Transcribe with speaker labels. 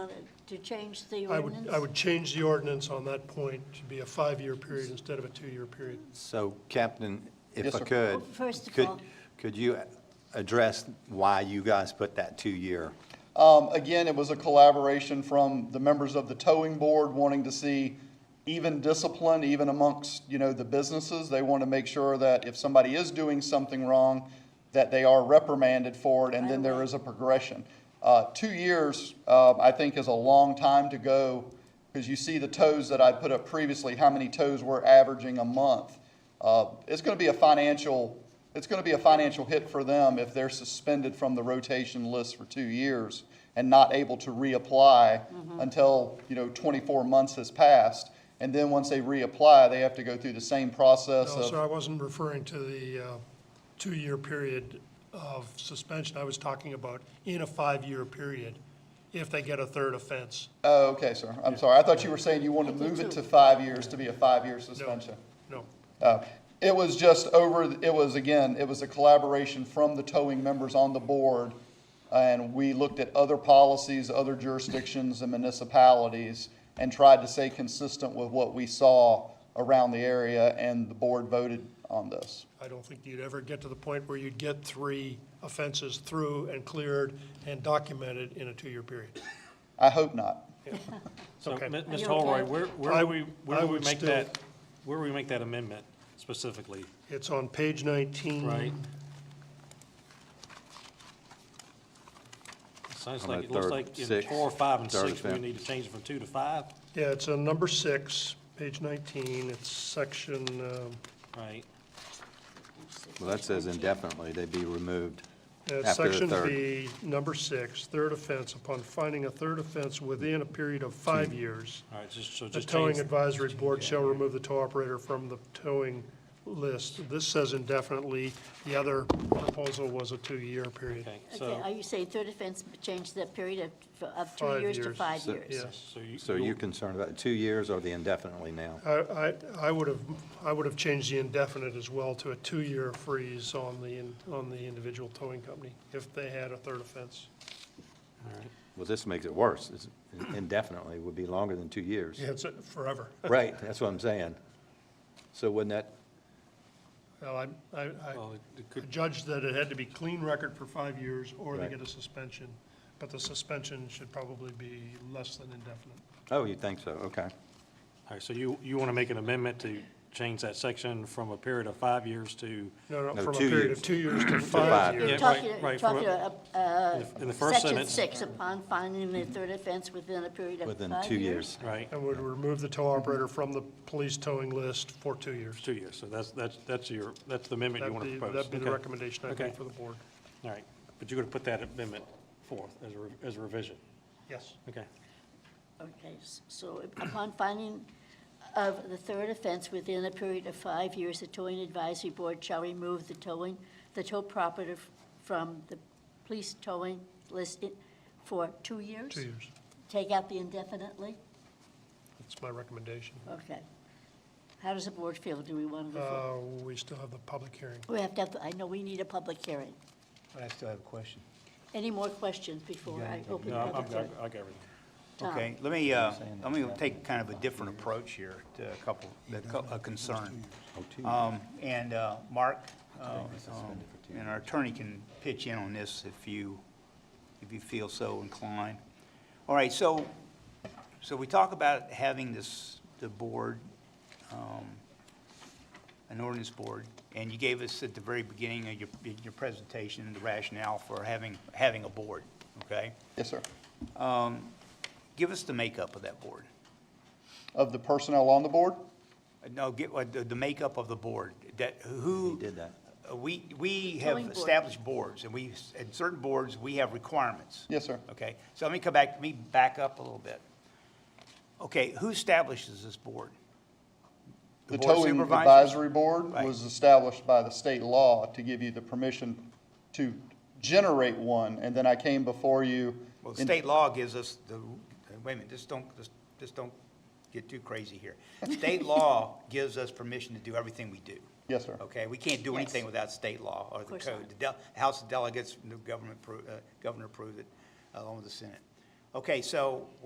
Speaker 1: to change the
Speaker 2: I would,
Speaker 1: ordinance?
Speaker 2: I would change the ordinance on that point to be a five-year period instead of a two-year period.
Speaker 3: So, Captain, if
Speaker 4: Yes,
Speaker 3: I
Speaker 4: sir.
Speaker 3: could.
Speaker 1: First of
Speaker 3: could-
Speaker 1: all-
Speaker 3: Could you address why you guys put that two-year?
Speaker 4: Um, again, it was a collaboration from the members of the towing board wanting to see even discipline, even amongst, you know, the businesses. They want to make sure that if somebody is doing something wrong, that they are reprimanded for it, and then there is a progression. Uh, two years, uh, I think is a long time to go, because you see the tows that I put up previously, how many tows we're averaging a month. Uh, it's going to be a financial, it's going to be a financial hit for them if they're suspended from the rotation list for two years and not able to reapply until, you know, 24 months has passed. And then once they reapply, they have to go through the same process
Speaker 2: No,
Speaker 4: of.
Speaker 2: sir, I wasn't referring to the uh, two-year period of suspension. I was talking about in a five-year period, if they get a third offense.
Speaker 4: Oh, okay, sir. I'm sorry. I thought you were saying you wanted to move it to five years to be a five-year
Speaker 2: No,
Speaker 4: suspension.
Speaker 2: No.
Speaker 4: Uh, It was just over, it was, again, it was a collaboration from the towing members on the board, and we looked at other policies, other jurisdictions and municipalities, and tried to stay consistent with what we saw around the area, and the board voted on this.
Speaker 2: I don't think you'd ever get to the point where you'd get three offenses through and cleared and documented in a two-year period.
Speaker 4: I hope not.
Speaker 5: So,
Speaker 2: Okay.
Speaker 5: Mi- Ms.
Speaker 1: you
Speaker 5: Holroyd,
Speaker 1: okay?
Speaker 5: where, where
Speaker 2: I-
Speaker 5: do we, where
Speaker 2: I
Speaker 5: do we
Speaker 2: would
Speaker 5: make
Speaker 2: still-
Speaker 5: that, where do we make that amendment specifically,
Speaker 2: It's on page 19.
Speaker 5: right? It Sounds
Speaker 3: On
Speaker 5: like,
Speaker 3: that
Speaker 5: it looks
Speaker 3: third,
Speaker 5: like in
Speaker 3: sixth,
Speaker 5: four, five, and
Speaker 3: third
Speaker 5: six, we
Speaker 3: offense.
Speaker 5: need to change it from two to five,
Speaker 2: Yeah, it's on number six, page 19. It's section, um,
Speaker 5: right?
Speaker 3: Well, that says indefinitely, they'd be removed
Speaker 2: Uh,
Speaker 3: after the
Speaker 2: Section
Speaker 3: third.
Speaker 2: B, number six, third offense, upon finding a third offense within a period of five years,
Speaker 5: All right, just, so
Speaker 2: the
Speaker 5: just change.
Speaker 2: towing advisory board shall remove the tow operator from the towing list. This says indefinitely. The other proposal was a two-year period.
Speaker 5: Okay,
Speaker 1: Okay,
Speaker 5: so,
Speaker 1: are you saying third offense, but change that period of, of two
Speaker 2: Five
Speaker 1: years to
Speaker 2: years.
Speaker 1: five
Speaker 3: So-
Speaker 1: years?
Speaker 2: Yes.
Speaker 5: so you.
Speaker 3: So
Speaker 5: you'll-
Speaker 3: you're concerned about two years or the indefinitely now?
Speaker 2: I, I, I would have, I would have changed the indefinite as well to a two-year freeze on the, in- on the individual towing company if they had a third offense.
Speaker 5: all right.
Speaker 3: Well, this makes it worse. It's- Indefinitely would be longer than two years.
Speaker 2: Yeah, it's forever.
Speaker 3: Right, that's what I'm saying. So wouldn't that,
Speaker 2: Well, I, I, I.
Speaker 5: Well, it- it
Speaker 2: I
Speaker 5: could-
Speaker 2: judged that it had to be clean record for five years, or they
Speaker 3: Right.
Speaker 2: get a suspension, but the suspension should probably be less than indefinite.
Speaker 3: oh, you think so, okay.
Speaker 5: All right, so you, you want to make an amendment to change that section from a period of five years to,
Speaker 1: Uh,
Speaker 2: No, no,
Speaker 3: No,
Speaker 2: from a
Speaker 3: two
Speaker 2: period of
Speaker 3: years.
Speaker 2: two years to
Speaker 3: five.
Speaker 2: five
Speaker 1: You're
Speaker 5: Yeah,
Speaker 2: years.
Speaker 1: talking,
Speaker 5: right, right, for-
Speaker 1: talking, uh,
Speaker 5: in
Speaker 1: uh,
Speaker 5: the- in the first
Speaker 1: section
Speaker 5: sentence,
Speaker 1: six, upon finding the third offense within a period of five years?
Speaker 3: Within two years.
Speaker 5: right?
Speaker 2: And would remove the tow operator from the police towing list for two years.
Speaker 5: Two years, so that's, that's, that's your, that's the amendment you
Speaker 2: That'd
Speaker 5: want
Speaker 2: be,
Speaker 5: to propose.
Speaker 2: that'd be the
Speaker 5: Okay.
Speaker 2: recommendation I'd make
Speaker 5: Okay.
Speaker 2: for the board.
Speaker 5: All right, but you're going to put that amendment forth as a, re- as a revision,
Speaker 2: Yes.
Speaker 5: okay?
Speaker 1: Okay, s- so upon finding of the third offense within a period of five years, the towing advisory board shall remove the towing, the tow property f- from the police towing list i- for two years?
Speaker 2: Two years.
Speaker 1: Take out the indefinitely?
Speaker 2: That's my recommendation.
Speaker 1: Okay. How does the board feel? Do we want to go forward?
Speaker 2: Uh, we still have the public hearing.
Speaker 1: We have to, have- I know we need a public hearing.
Speaker 6: I still have a question.
Speaker 1: Any more questions before I open
Speaker 5: No,
Speaker 1: the
Speaker 5: I
Speaker 1: public
Speaker 5: got,
Speaker 1: hearing?
Speaker 5: I got everything.
Speaker 1: Tom.
Speaker 6: Okay, let me, uh, let me take kind of a different approach here to a couple, a cou- a concern. Um, And uh, Mark, uh, um, and our attorney can pitch in on this if you, if you feel so inclined. All right, so, so we talk about having this, the board, um, an ordinance board, and you gave us at the very beginning of your, your presentation, the rationale for having, having a board, okay?
Speaker 4: Yes, sir.
Speaker 6: Give us the makeup of that board.
Speaker 4: Of the personnel on the board?
Speaker 6: No, get, what- the the makeup of the board, that, who?
Speaker 3: He did that.
Speaker 6: Uh, We,
Speaker 1: Zoning
Speaker 6: we have
Speaker 1: board.
Speaker 6: established boards, and we, at certain boards, we have requirements.
Speaker 4: Yes, sir.
Speaker 6: Okay, so let me come back, let me back up a little bit. Okay, who establishes this board?
Speaker 4: The
Speaker 6: board of
Speaker 4: towing
Speaker 6: supervisors?
Speaker 4: advisory board
Speaker 6: Right.
Speaker 4: was established by the state law to give you the permission to generate one, and then I came before you.
Speaker 6: Well,
Speaker 4: in-
Speaker 6: state law gives us the, wait a minute, just don't, just- just don't get too crazy here. State law gives us permission to do everything we do.
Speaker 4: Yes, sir.
Speaker 6: Okay, we can't do anything
Speaker 1: Yes.
Speaker 6: without state law or the
Speaker 1: course
Speaker 6: code. The del- House of Delegates, the government, pro- uh, governor approved it, uh, along with the Senate. Okay, so